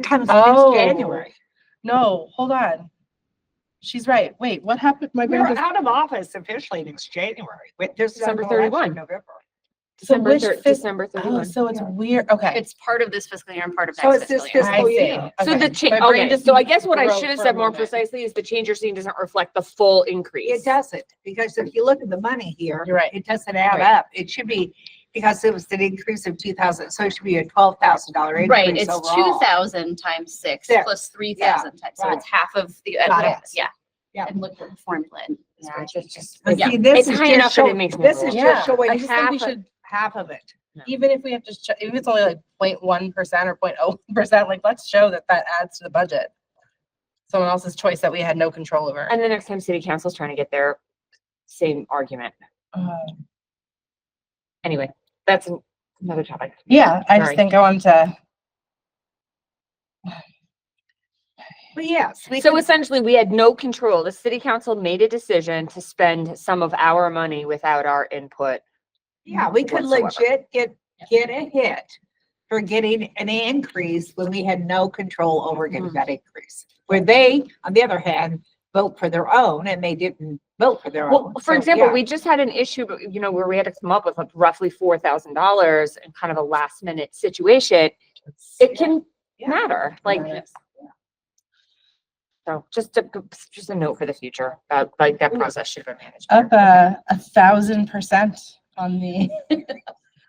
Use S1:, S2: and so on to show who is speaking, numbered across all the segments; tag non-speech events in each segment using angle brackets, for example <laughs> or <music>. S1: Time is
S2: Oh.
S1: it's January.
S2: No, hold on. She's right. Wait, what happened? My
S1: We're
S2: grandpa's.
S1: out of office officially next January. Wait, There's
S3: December
S1: another election in
S3: 31.
S1: November.
S2: So
S3: December
S2: which
S3: thir-
S2: fis-
S3: December
S2: Oh,
S3: thirty-one.
S2: so it's weird. Okay.
S4: It's part of this fiscal year and part of
S1: So
S4: next
S1: it's
S4: fiscal
S1: this
S4: year.
S2: I
S1: fiscal
S2: see.
S1: year.
S3: So
S2: Okay.
S3: the change,
S2: My brain
S3: okay,
S2: just
S3: so I guess what I
S2: broke
S3: should have
S2: for a
S3: said more
S2: moment.
S3: precisely is the change you're seeing doesn't reflect the full increase.
S1: It doesn't, because if you look at the money here.
S2: You're right.
S1: It doesn't add
S2: Right.
S1: up. It should be, because it was an increase of two thousand, so it should be a twelve thousand dollar
S4: Right,
S1: increase
S4: it's
S1: overall.
S4: two thousand times six
S1: There.
S4: plus three thousand times, so
S1: right.
S4: it's half of the,
S1: Got it.
S4: yeah.
S1: Yeah.
S4: And look at the formula. and the
S3: Yeah, it's
S4: spreadsheet.
S3: just-
S1: But
S4: Yeah.
S1: see, this
S3: It's
S1: is
S3: high
S1: just
S3: enough that it
S1: show-
S3: makes me
S1: This
S3: roll.
S1: is
S2: Yeah,
S1: just showing
S2: I just think
S1: half,
S2: we
S1: of-
S2: should,
S1: half of it.
S2: even if we have to, sh- even if it's only like 0.1 percent or 0.01 percent, like let's show that that adds to the budget. Someone else's choice that we had no control over.
S3: And the next time city council's trying to get their same argument. Um,
S2: Uh,
S3: Anyway, that's an- another topic.
S2: Yeah, I just
S3: Sorry.
S2: think I wanted to.
S1: But yes. we
S3: So
S1: can-
S3: essentially, we had no control. The city council made a decision to spend some of our money without our input.
S1: Yeah, we could
S3: whatsoever.
S1: legit get, get a hit for getting an increase when we had no control over getting
S3: Mhm.
S1: that increase. Where they, on the other hand, vote for their own and they didn't vote for their
S3: Well,
S1: own.
S3: for
S1: So,
S3: example,
S1: yeah.
S3: we just had an issue, but, you know, where we had to come up with like roughly four thousand dollars and kind of a last minute situation. It can
S1: Yeah.
S3: matter, like,
S2: Right.
S3: so just a, just a note for the future, that, like, that process should be managed.
S2: Up
S3: better.
S2: a, a thousand percent on the, <laughs>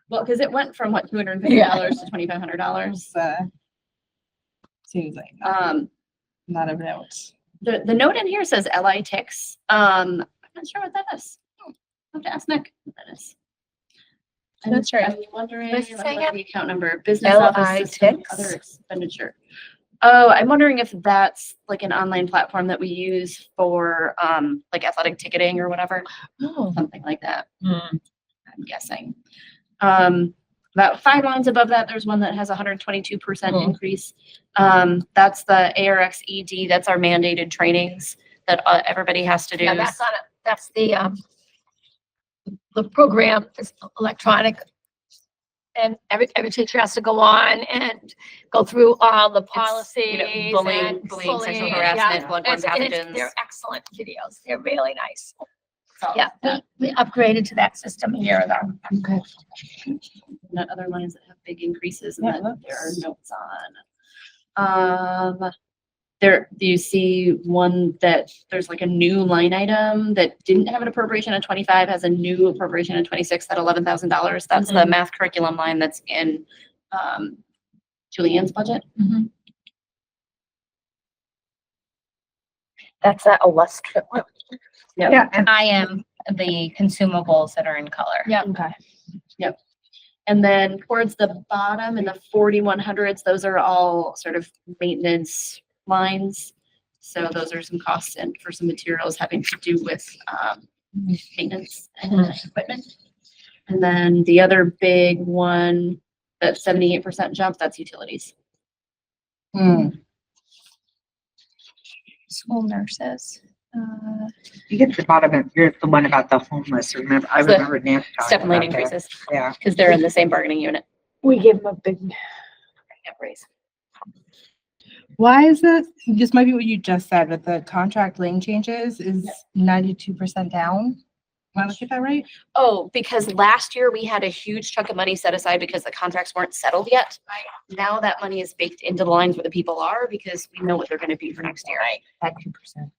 S4: Well, because it went from what, two hundred and fifty dollars to twenty-five hundred dollars.
S2: uh, seems like not-
S4: Um,
S2: not a note.
S4: the, the note in here says LI ticks. Um, I'm not sure what that is. Hmm, I'll have to ask Nick what that is. I'm-
S2: That's right.
S4: I'm wondering
S2: Let's
S4: about
S2: say
S4: the
S2: it.
S4: account number, business office
S2: LI
S4: system,
S2: ticks?
S4: other expenditure. Oh, I'm wondering if that's like an online platform that we use for, um, like athletic ticketing or whatever.
S2: Oh.
S4: something like that,
S5: Hmm.
S4: I'm guessing. Um, about five lines above that, there's one that has hundred twenty-two percent
S5: Hmm.
S2: Mhm.
S4: increase. Um, that's the ARX ED, E that's our mandated trainings that uh, everybody has to do.
S5: Yeah, that's not, a- that's the, um, the program is electronic. And every, every teacher has to go on and go through all the
S4: you know,
S5: policies
S4: bullying-
S5: and
S4: bullying, sexual
S5: bullying,
S4: harassment,
S5: yeah.
S4: bloodborne
S5: It's- and it's-
S4: pathogens.
S5: They're excellent videos. They're really nice.
S4: So,
S5: Yeah, we, we upgraded to that system a year ago.
S3: Okay.
S4: Not other lines that have big increases and
S2: Yeah,
S4: that there are
S2: that's-
S4: notes on. Um, there, do you see one that there's like a new line item that didn't have an appropriation in twenty-five, has a new appropriation in twenty-six, that eleven thousand dollars? That's
S2: Mm-hmm.
S4: the math curriculum line that's in, um, Julianne's budget.
S6: That's that illustrative.
S4: Yeah.
S1: Yeah, and
S6: I am the consumables that are in color.
S4: Yeah.
S3: Okay.
S4: And then towards the bottom in the forty-one hundreds, those are all sort of maintenance lines. So those are some costs and for some materials having to do with, um, maintenance and
S1: Mm-hmm.
S4: equipment. And then the other big one, that seventy-eight percent jump, that's utilities.
S1: Hmm.
S5: School nurses. uh,
S1: you get to the bottom of, you're the one about the homeless, remember? I
S4: The
S1: remember Nancy
S4: Step
S1: talking
S4: and lane
S1: about that.
S4: increases,
S1: Yeah.
S4: because they're in the same bargaining unit.
S3: We gave them a big
S4: Yep, raise.
S2: Why is that? This might be what you just said, but the contract lane changes is ninety-two percent down. Am I looking at that right?
S4: Oh, because last year we had a huge chunk of money set aside because the contracts weren't settled yet. Now that money is baked into the lines where the people are because we know what they're gonna be for next year.
S3: at two percent.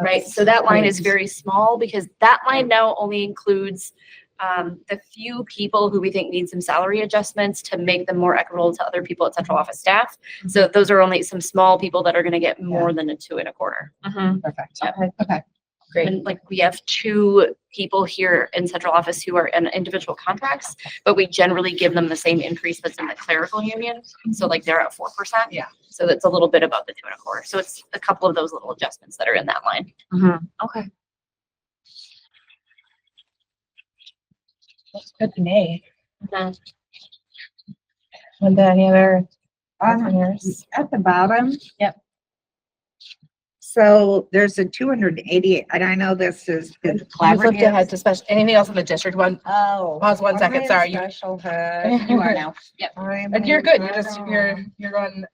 S4: Right, so that line is very small because that line now only includes um, the few people who we think need some salary adjustments to make them more equitable to other people at central office staff. So those are only some small people that are gonna get more than a two and a quarter.
S3: mm-hmm.
S2: Perfect.
S4: Yep.
S2: Okay, okay.
S3: Great.
S4: And like, we have two people here in central office who are in individual contracts, but we generally give them the same increase that's in the clerical union. So like they're at four percent.
S1: Yeah.
S4: So that's a little bit above the two and a quarter. So it's a couple
S5: Oh,
S4: of those little adjustments that are in that line.
S3: Okay.
S2: That's good to me. And then any other
S1: Um,
S2: entrepreneurs?
S1: at the bottom.
S2: Yep.
S1: So there's a two hundred and eighty, and I know this is is
S2: You flipped ahead
S1: collaborative.
S2: to special, anything else in the district one?
S1: Oh.
S2: Pause one second, sorry, you- <laughs>
S1: Special, ed. you are now.
S4: Yep.
S1: I'm
S2: And you're
S1: in
S2: good, you're just,
S1: special
S2: you're, you're going